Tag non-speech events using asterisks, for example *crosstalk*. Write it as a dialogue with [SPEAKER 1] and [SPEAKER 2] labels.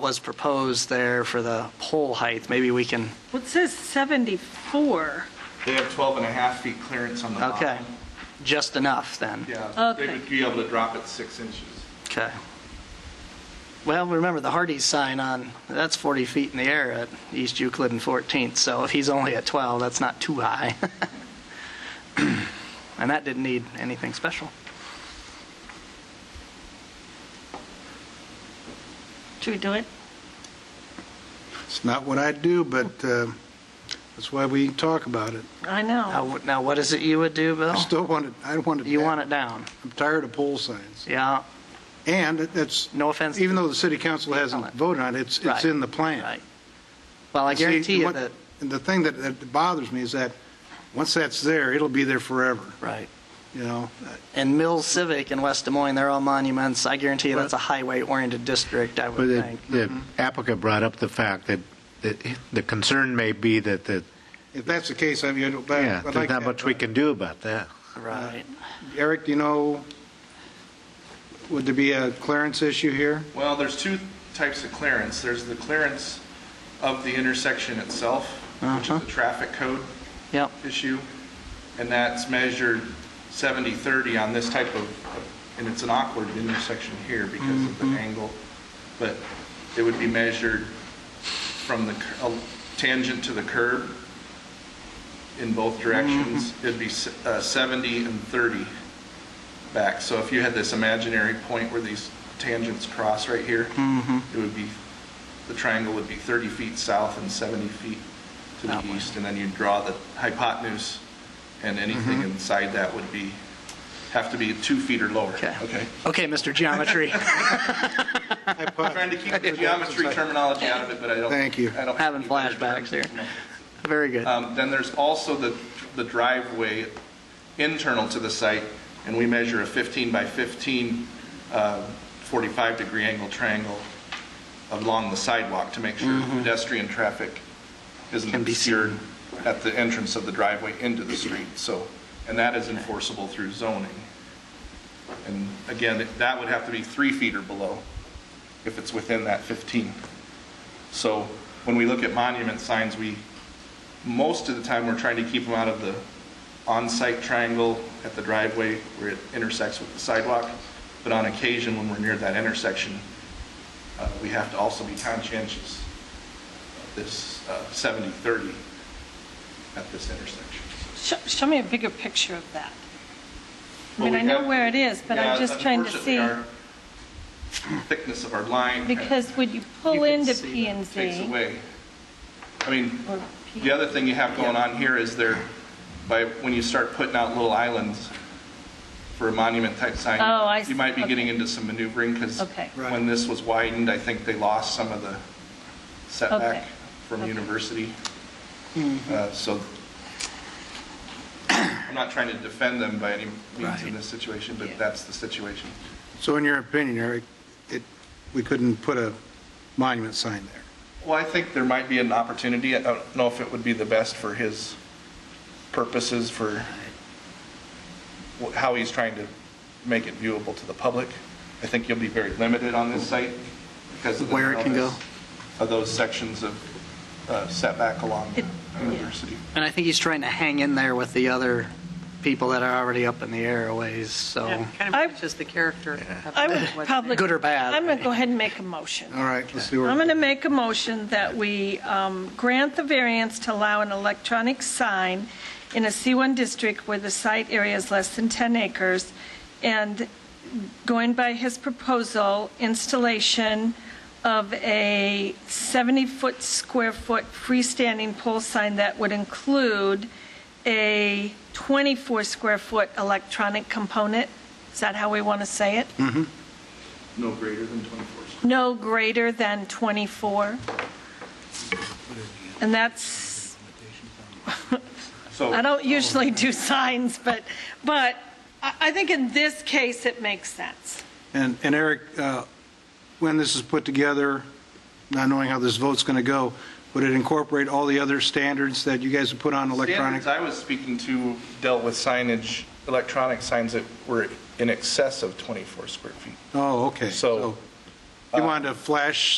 [SPEAKER 1] was proposed there for the pole height, maybe we can,
[SPEAKER 2] Well, it says 74.
[SPEAKER 3] They have 12 and a half feet clearance on the
[SPEAKER 4] Uh-huh.
[SPEAKER 3] bottom.
[SPEAKER 1] okay, just enough then.
[SPEAKER 3] Yeah, they
[SPEAKER 2] Okay.
[SPEAKER 3] would be able to drop it six inches.
[SPEAKER 1] Okay. Well, remember the Hardee's sign on, that's 40 feet in the air at East Euclid and 14th, so if he's only at 12, that's not too high. *laughs* And that didn't need anything special.
[SPEAKER 2] Should we do it?
[SPEAKER 4] It's not what I do, but uh, that's why we talk about it.
[SPEAKER 2] I know.
[SPEAKER 1] Now, now what is it you would do, Bill?
[SPEAKER 4] I still want it, I want it.
[SPEAKER 1] Oh. You
[SPEAKER 4] back.
[SPEAKER 1] want it down?
[SPEAKER 4] I'm tired of pole signs.
[SPEAKER 1] Yeah,
[SPEAKER 4] And it- it's,
[SPEAKER 1] no offense.
[SPEAKER 4] even though the city council hasn't voted on it, it's,
[SPEAKER 1] Right.
[SPEAKER 4] it's in the plan.
[SPEAKER 1] Right. Well, I guarantee you that,
[SPEAKER 4] And the thing that- that bothers me is that, once that's there, it'll be there forever,
[SPEAKER 1] right.
[SPEAKER 4] you know?
[SPEAKER 1] And Mills Civic in West Des Moines, they're all monuments. I guarantee you that's a highway-oriented district, I
[SPEAKER 5] But
[SPEAKER 1] would
[SPEAKER 5] the-
[SPEAKER 1] think.
[SPEAKER 5] the applicant brought up the fact that that the concern may be that, the
[SPEAKER 4] If that's the case, I mean, I'd
[SPEAKER 5] yeah,
[SPEAKER 4] I'd like that.
[SPEAKER 5] there's not much we can do about that.
[SPEAKER 1] Right.
[SPEAKER 4] Eric, do you know, would there be a clearance issue here?
[SPEAKER 1] *laughs*
[SPEAKER 3] Well, there's two types of clearance. There's the clearance of the intersection itself, which
[SPEAKER 1] Uh-huh.
[SPEAKER 3] is the traffic code
[SPEAKER 1] Yep,
[SPEAKER 3] issue, and that's measured 70/30 on this type of, and it's an awkward intersection here because of the
[SPEAKER 1] Mm-hmm.
[SPEAKER 3] angle, but it would be measured from the cur- uh, tangent to the curb in both directions.
[SPEAKER 1] Mm-hmm.
[SPEAKER 3] It'd be s- uh, 70 and 30 back. So if you had this imaginary point where these tangents cross right here,
[SPEAKER 1] Mm-hmm.
[SPEAKER 3] it would be, the triangle would be 30 feet south and 70 feet to
[SPEAKER 1] That way.
[SPEAKER 3] the east, and then you'd draw the hypotenuse, and anything
[SPEAKER 1] Mm-hmm.
[SPEAKER 3] inside that would be, have to be two feet or lower.
[SPEAKER 1] okay.
[SPEAKER 3] Okay.
[SPEAKER 1] Okay, Mr.
[SPEAKER 3] *laughs*
[SPEAKER 1] Geometry.
[SPEAKER 3] Trying to keep the geometry terminology out of it, but I don't.
[SPEAKER 4] Thank you.
[SPEAKER 3] I
[SPEAKER 1] *laughs*
[SPEAKER 3] don't-
[SPEAKER 1] Having flashbacks here. Very good.
[SPEAKER 3] Um, Then there's also the, the driveway internal to the site, and we measure a 15 by 15, 45-degree angle triangle along the sidewalk to make sure pedestrian traffic isn't
[SPEAKER 1] Mm-hmm. Can be
[SPEAKER 3] obscured at the entrance of the driveway into the street, so, and that is enforceable through zoning. And again, it- that would have to be three feet or below if it's within that 15. So when we look at monument signs, we, most of the time, we're trying to keep them out of the on-site triangle at the driveway where it intersects with the sidewalk. But on occasion, when we're near that intersection, uh, we have to also be conscientious of this uh, 70-30 at this intersection.
[SPEAKER 2] Show, show me a bigger picture of that. I
[SPEAKER 3] Well,
[SPEAKER 2] mean, I
[SPEAKER 3] we
[SPEAKER 2] know
[SPEAKER 3] have-
[SPEAKER 2] where it is, but
[SPEAKER 3] Yeah,
[SPEAKER 2] I'm just trying to see,
[SPEAKER 3] unfortunately, our Thickness of our *clears throat* line.
[SPEAKER 2] because when you
[SPEAKER 1] You
[SPEAKER 2] pull
[SPEAKER 1] can
[SPEAKER 2] into
[SPEAKER 1] see that
[SPEAKER 2] P and
[SPEAKER 3] takes
[SPEAKER 2] Z.
[SPEAKER 3] away. I mean,
[SPEAKER 2] or P-
[SPEAKER 3] the other thing you have going on here is there, by, when you start putting out little islands for a monument type sign,
[SPEAKER 2] Oh, I
[SPEAKER 3] you might be
[SPEAKER 2] see.
[SPEAKER 3] getting into some maneuvering, because
[SPEAKER 2] Okay.
[SPEAKER 4] Right.
[SPEAKER 3] when this was widened, I think they lost some of the setback
[SPEAKER 2] Okay.
[SPEAKER 3] from
[SPEAKER 2] Okay.
[SPEAKER 3] university. Uh, So, I'm not trying to defend them by any means in this situation, but that's the situation.
[SPEAKER 4] So in your opinion, Eric, it, we couldn't put a monument sign there?
[SPEAKER 3] Well, I think there might be an opportunity. I don't know if it would be the best for his purposes for wh- how he's trying to make it viewable to the public. I think you'll be very limited on this site because of the
[SPEAKER 1] Where it can go.
[SPEAKER 3] narrowness Of those sections of uh, setback along
[SPEAKER 2] It-
[SPEAKER 3] University.
[SPEAKER 1] And I think he's trying to hang in there with the other people that are already up in the airways, so,
[SPEAKER 6] Kind
[SPEAKER 2] I-
[SPEAKER 6] of matches the character. of
[SPEAKER 2] I would
[SPEAKER 6] what's
[SPEAKER 2] probably.
[SPEAKER 1] good or bad.
[SPEAKER 2] I'm going to go ahead and make a motion.
[SPEAKER 4] All right, let's see where.
[SPEAKER 2] I'm going to make a motion that we um, grant the variance to allow an electronic sign in a C1 district where the site area is less than 10 acres, and going by his proposal, installation of a 70-foot square foot freestanding pole sign that would include a 24 square foot electronic component. Is that how we want to say it?
[SPEAKER 3] No greater than 24 square.
[SPEAKER 2] no greater than 24. And that's, I
[SPEAKER 3] So,
[SPEAKER 2] don't usually do signs, but, but I I think in this case, it makes sense.
[SPEAKER 4] And, and Eric, uh, when this is put together, not knowing how this vote's going to go, would it incorporate all the other standards that you guys have put on electronic?
[SPEAKER 3] standards I was speaking to dealt with signage, electronic signs that were in excess of 24 square feet.
[SPEAKER 4] Oh, okay.
[SPEAKER 3] So-
[SPEAKER 4] So You wanted a flash